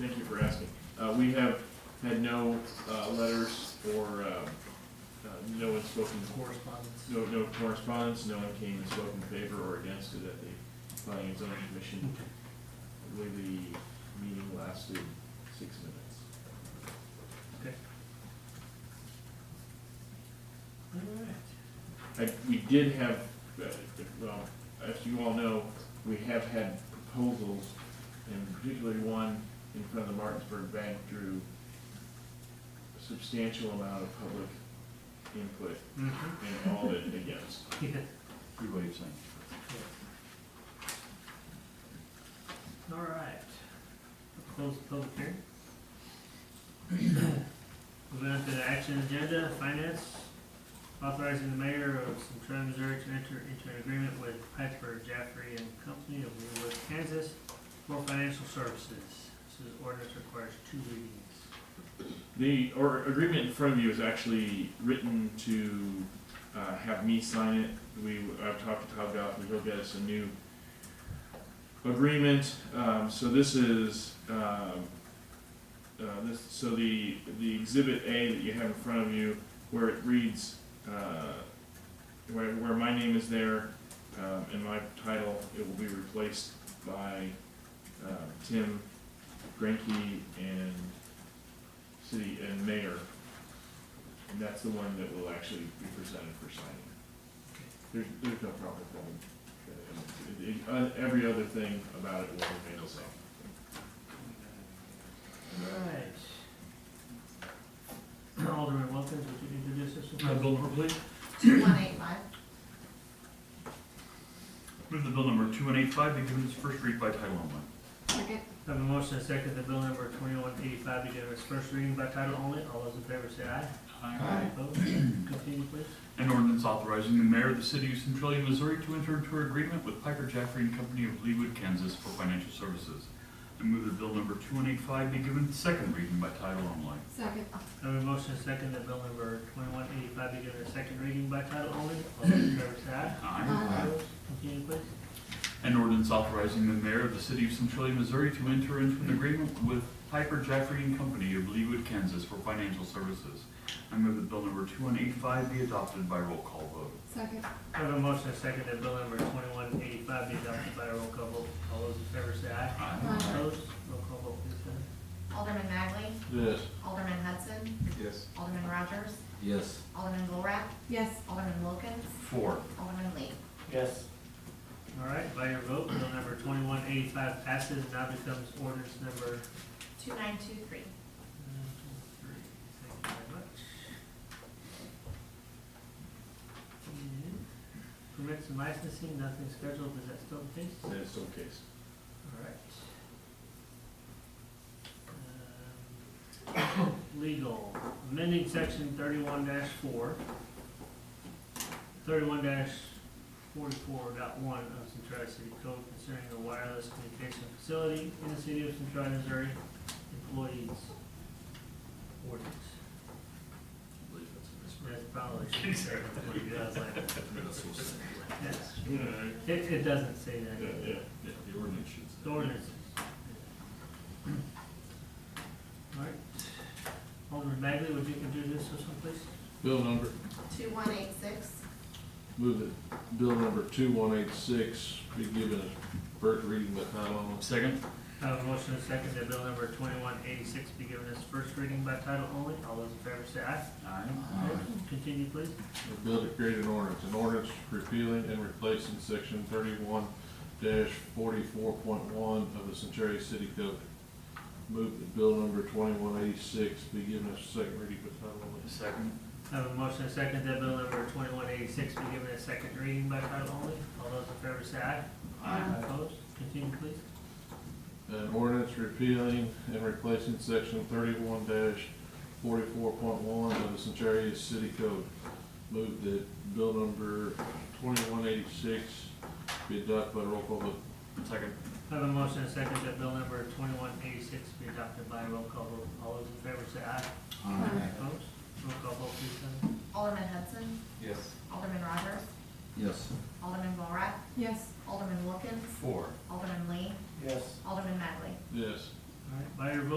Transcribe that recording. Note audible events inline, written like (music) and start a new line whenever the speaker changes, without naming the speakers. Thank you for asking. Uh, we have had no, uh, letters or, uh, uh, no one spoken,
correspondence.
no, no correspondence, no one came and spoke in favor or against it at the planning and zoning commission. I believe the meeting lasted six minutes. I, we did have, uh, well, as you all know, we have had proposals, and particularly one in front of the Martinsburg Bank drew a substantial amount of public input
Mhm.
and all of it against.
Yeah.
Good way of saying.
All right. Close the public hearing. Moving on to the action agenda, finance, authorizing the mayor of Central Missouri to enter into an agreement with Piper Jaffrey and Company of Leavenworth, Kansas for financial services. This is ordinance requires two readings.
The, or agreement in front of you is actually written to, uh, have me sign it. We, I've talked to Todd Goff, he'll get us a new agreement. Um, so this is, um, uh, this, so the, the exhibit A that you have in front of you, where it reads, uh, where, where my name is there, um, and my title, it will be replaced by, uh, Tim Granke and city and mayor. And that's the one that will actually be presented for signing. There's, there's no problem with that. It- it- uh, Every other thing about it will remain the same.
All right. (clears throat) Alderman Wilkins, would you introduce this? one?
Uh, Bill number, please.
2185.
Move the bill number 2185 be given its first read by title only.
Second.
Have a motion and second that bill number twenty-one eighty-five be given its first reading by title only. All those in favor say aye. Opposed? Continue, please.
An ordinance authorizing the mayor of the city of Centralia, Missouri to enter into an agreement with Piper Jaffray and Company of Leawood, Kansas for financial services. I move that bill number 2185 be given its second reading by title only.
Second.
Have a motion and second that bill number twenty-one eighty-five be given its second reading by title only. All those in favor say aye.
Aye.
Aye.
Opposed? Continue, please.
An ordinance authorizing the mayor of the city of Centralia, Missouri to enter into an agreement with Piper Jaffray and Company of Leawood, Kansas for financial services. I move that bill number 2185 be adopted by roll call vote.
Second.
Have a motion and second that bill number twenty-one eighty-five be adopted by roll call vote. All those in favor say aye.
Aye.
Aye.
Opposed? Roll call vote, please, Heather.
Alderman Magley.
Yes.
Alderman Hudson.
Yes.
Alderman Rogers.
Yes.
Alderman Borat. Yes. Alderman Wilkins.
Four.
Alderman Lee.
Yes. All right, by your vote, bill number twenty-one eighty-five passes and now becomes ordinance number
2923.
Thank you very much. And Permits and licensing, nothing scheduled, is that still the case?
That's still the case.
All right. Um, (coughs) Legal, amending section thirty-one dash four, thirty-one dash forty-four dot one of Centralia City Code concerning the wireless communication facility in the city of Centralia, Missouri, employees. Ordinance. That's probably, I was like, yes.
Yeah,
It, it doesn't say that.
yeah, yeah.
The ordinance should.
The ordinances. All right. Alderman Magley, would you introduce this one, please?
Bill number,
2186.
move that bill number two one eight six be given its first reading by title only.
Second?
I have a motion and a second that bill number twenty-one eighty-six be given its first reading by title only. All those in favor say aye.
Aye.
Continue, please.
A bill to create an ordinance, an ordinance repealing and replacing section thirty-one forty-four point one of the Centaria City Code. Move that bill number twenty-one eighty-six be given its second reading by title only.
Second?
I have a motion and a second that bill number twenty-one eighty-six be given its second reading by title only. All those in favor say aye. Opposed? Continue, please.
An ordinance repealing and replacing section thirty-one forty-four point one of the Centaria City Code. Move that bill number twenty-one eighty-six be adopted by roll call vote.
Second?
I have a motion and a second that bill number twenty-one eighty-six be adopted by roll call vote. All those in favor say aye. Opposed? Roll call vote, please, Heather.
Alderman Hudson.
Yes.
Alderman Rogers.
Yes.
Alderman Borat. Yes. Alderman Wilkins.
Four.
Alderman Lee.
Yes.
Alderman Magley.
Yes.
All right, by your vote,